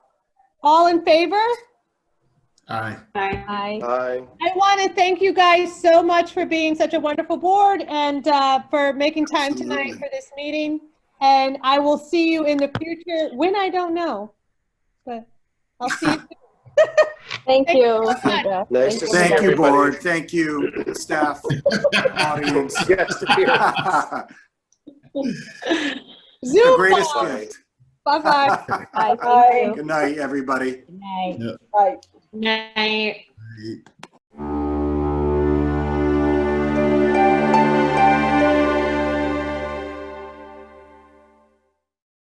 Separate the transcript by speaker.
Speaker 1: All in favor?
Speaker 2: Aye.
Speaker 3: Aye.
Speaker 4: Aye.
Speaker 5: Aye.
Speaker 1: I want to thank you guys so much for being such a wonderful board and uh, for making time tonight
Speaker 2: Absolutely.
Speaker 1: for this meeting. And I will see you in the future, when I don't know. But I'll see you.
Speaker 4: Thank
Speaker 1: Thank
Speaker 4: you.
Speaker 1: you so much.
Speaker 4: Sandra.
Speaker 5: Nice to
Speaker 4: so
Speaker 5: see
Speaker 6: Thank you,
Speaker 4: much.
Speaker 5: everybody.
Speaker 6: board. Thank you, staff, audience.
Speaker 5: Yes, dear.
Speaker 6: The
Speaker 1: Zoom
Speaker 6: greatest
Speaker 1: call.
Speaker 6: gift.
Speaker 1: Bye-bye.
Speaker 4: Aye, thank you.
Speaker 6: Good night, everybody.
Speaker 4: Good night.
Speaker 3: Night.
Speaker 2: Aye.